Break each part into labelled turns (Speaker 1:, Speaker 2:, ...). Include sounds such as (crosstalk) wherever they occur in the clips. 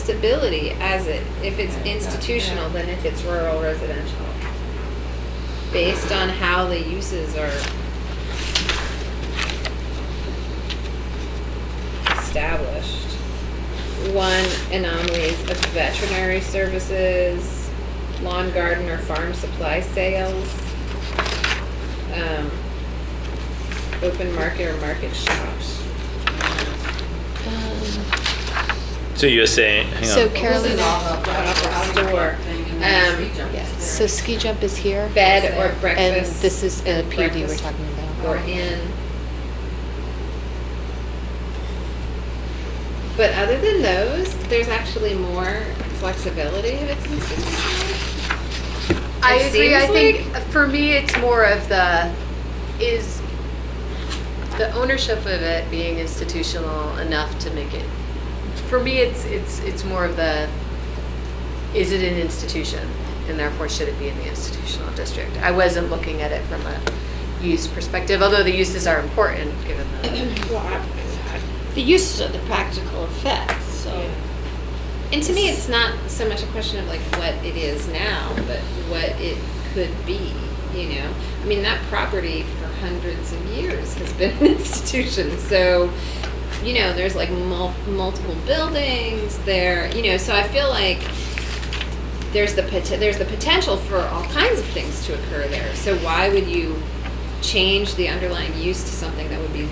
Speaker 1: disability as it, if it's institutional than if it's rural residential. Based on how the uses are established. One anomalies of veterinary services, lawn garden or farm supply sales. Um, open market or market shops.
Speaker 2: So you're saying, hang
Speaker 3: So
Speaker 2: on.
Speaker 4: This is all
Speaker 3: Carolina,
Speaker 4: about that outdoor thing and then
Speaker 1: Um,
Speaker 4: speech up
Speaker 3: yeah,
Speaker 4: there.
Speaker 3: so ski jump is here.
Speaker 1: Bed or
Speaker 3: And
Speaker 1: breakfast.
Speaker 3: this is a PUD we're
Speaker 1: breakfast
Speaker 3: talking about.
Speaker 1: Or in. But other than those, there's actually more flexibility if it's institutional.
Speaker 5: I
Speaker 1: It
Speaker 5: agree. I
Speaker 1: seems
Speaker 5: think for me, it's more of the is the ownership of it being institutional enough to make it. For me, it's it's it's more of the is it an institution and therefore should it be in the institutional district. I wasn't looking at it from a use perspective, although the uses are important given the.
Speaker 6: The uses are the practical effects, so.
Speaker 1: And to me, it's not so much a question of like what it is now, but what it could be, you know? I mean, that property for hundreds of years has been an (laughs) institution, so, you know, there's like mul- multiple buildings there, you know, so I feel like there's the pot- there's the potential for all kinds of things to occur there. So why would you change the underlying use to something that would be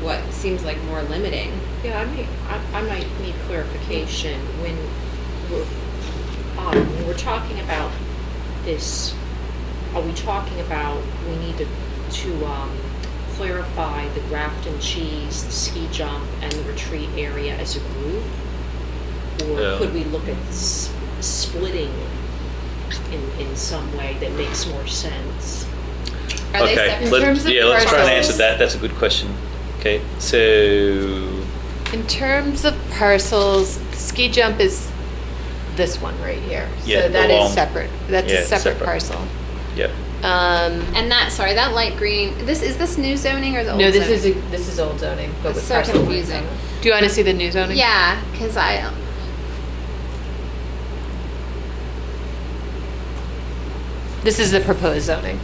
Speaker 1: what seems like more limiting?
Speaker 6: Yeah, I may, I, I might need clarification when we're, um, when we're talking about this, are we talking about, we need to, to, um, clarify the Grafton Cheese, the ski jump, and the retreat area as a group?
Speaker 2: Yeah.
Speaker 6: Or could we look at s- splitting in, in some way that makes more sense?
Speaker 1: Are they
Speaker 2: okay,
Speaker 1: separate?
Speaker 2: let-
Speaker 5: terms of
Speaker 2: yeah, let's try and answer
Speaker 5: parcels-
Speaker 2: that. That's a good question. Okay, so
Speaker 5: In terms of parcels, ski jump is this one right here.
Speaker 2: Yeah, the
Speaker 5: so that
Speaker 2: long-
Speaker 5: is separate. That's
Speaker 2: yeah,
Speaker 5: a separate,
Speaker 2: separate.
Speaker 5: parcel.
Speaker 2: yeah,
Speaker 5: Um,
Speaker 1: And that, sorry, that light green, this, is this new zoning or the old
Speaker 4: No,
Speaker 1: zoning?
Speaker 4: this is, this is old zoning, but
Speaker 1: It's
Speaker 4: with
Speaker 1: so
Speaker 4: parcel one
Speaker 1: confusing.
Speaker 4: zoning.
Speaker 5: do you want to see the new zoning?
Speaker 1: Yeah, because I,
Speaker 5: This is the proposed zoning,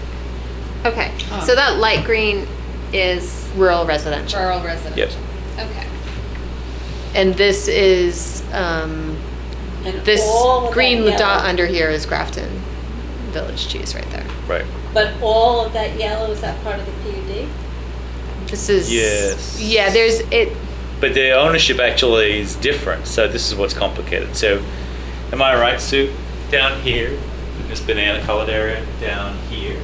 Speaker 1: okay,
Speaker 4: Oh.
Speaker 1: so that light green is
Speaker 5: rural residential.
Speaker 1: rural
Speaker 2: yep.
Speaker 1: residential. Okay.
Speaker 5: And this is, um,
Speaker 6: And
Speaker 5: this
Speaker 6: all of that
Speaker 5: green dot
Speaker 6: yellow-
Speaker 5: under here is Grafton Village Cheese right there.
Speaker 2: Right.
Speaker 6: But all of that yellow, is that part of the PUD?
Speaker 5: This is.
Speaker 2: Yes.
Speaker 5: Yeah, there's, it,
Speaker 2: But the ownership actually is different. So this is what's complicated. So, am I right, Sue? Down here, this banana colored area down here,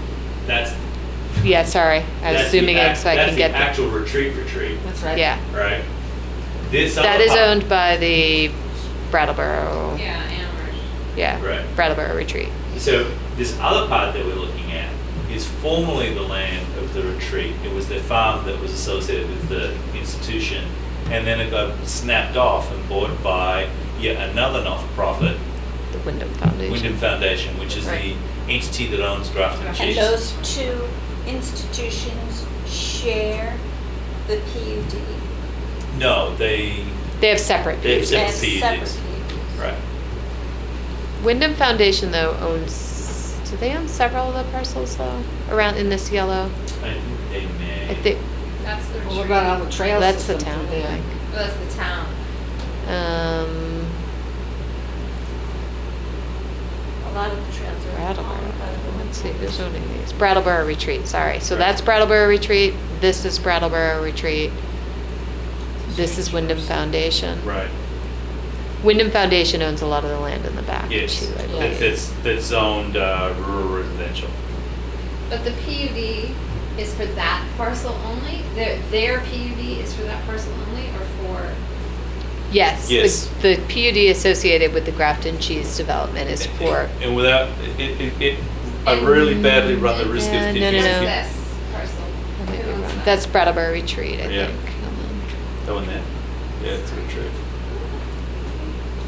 Speaker 2: that's
Speaker 5: yeah, sorry, I was
Speaker 2: that's the
Speaker 5: zooming in
Speaker 2: act-
Speaker 5: so I
Speaker 2: that's
Speaker 5: can get.
Speaker 2: the actual retreat retreat,
Speaker 4: That's
Speaker 5: the-
Speaker 4: right.
Speaker 5: Yeah,
Speaker 2: right? This
Speaker 5: that
Speaker 2: other
Speaker 5: is
Speaker 2: part-
Speaker 5: owned by the Brattleboro,
Speaker 1: Yeah, Amherst.
Speaker 5: yeah,
Speaker 2: Right.
Speaker 5: Brattleboro Retreat.
Speaker 2: So this other part that we're looking at is formerly the land of the retreat. It was the farm that was associated with the institution, and then it got snapped off and bought by yet another not-for-profit,
Speaker 5: The Wyndham Foundation.
Speaker 2: Wyndham Foundation, which is the
Speaker 4: Right.
Speaker 2: entity that owns Grafton
Speaker 6: And
Speaker 2: Cheese.
Speaker 6: those two institutions share the PUD.
Speaker 2: No, they
Speaker 5: They have separate
Speaker 2: They have
Speaker 5: views.
Speaker 2: Separate
Speaker 6: as
Speaker 2: PUDs.
Speaker 6: separate PUDs.
Speaker 2: right.
Speaker 5: Wyndham Foundation though owns, do they own several of the parcels though, around in this yellow?
Speaker 2: I think they may.
Speaker 5: I think,
Speaker 1: That's the Oh,
Speaker 4: Well, What about all the trail
Speaker 5: that's the
Speaker 4: system
Speaker 5: town,
Speaker 4: through
Speaker 5: I
Speaker 4: there?
Speaker 5: think.
Speaker 1: That's the town.
Speaker 5: Um,
Speaker 6: A lot of the trails are.
Speaker 5: Brattleboro,
Speaker 6: owned by the
Speaker 5: let's see,
Speaker 6: Wyndham
Speaker 5: who's owning these? Brattleboro Retreat, sorry. So that's Brattleboro Retreat, this is Brattleboro Retreat, this is Wyndham Foundation.
Speaker 2: Right.
Speaker 5: Wyndham Foundation owns a lot of the land in the back too,
Speaker 2: Yes.
Speaker 5: I
Speaker 2: That's,
Speaker 5: believe.
Speaker 2: that's, that's zoned uh, rural residential.
Speaker 1: But the PUD is for that parcel only? Their, their PUD is for that parcel only or for?
Speaker 5: Yes, the-
Speaker 2: Yes.
Speaker 5: the PUD associated with the Grafton Cheese Development is for
Speaker 2: And without, it, it, it, I really badly run the risk of.
Speaker 5: Uh, no,
Speaker 2: if
Speaker 5: no,
Speaker 2: you-
Speaker 5: no.
Speaker 2: if you-
Speaker 1: This parcel.
Speaker 5: I might
Speaker 1: Who
Speaker 5: be
Speaker 1: owns
Speaker 5: wrong.
Speaker 1: that?
Speaker 5: That's Brattleboro Retreat, I
Speaker 2: Yeah.
Speaker 5: think.
Speaker 2: That one there? Yeah, it's a good trip.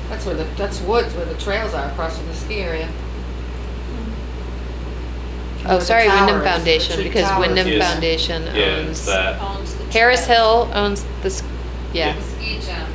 Speaker 4: That's where the, that's woods, where the trails are across from the ski area.
Speaker 5: Oh,
Speaker 4: the
Speaker 5: sorry, Wyndham
Speaker 4: towers, the
Speaker 5: Foundation,
Speaker 4: two
Speaker 5: because
Speaker 4: towers.
Speaker 5: Wyndham
Speaker 2: Yes.
Speaker 5: Foundation
Speaker 2: Yeah, it's
Speaker 5: owns,
Speaker 2: that.
Speaker 6: Owns the
Speaker 5: Harris
Speaker 6: trail.
Speaker 5: Hill owns this, yeah,
Speaker 1: The ski jump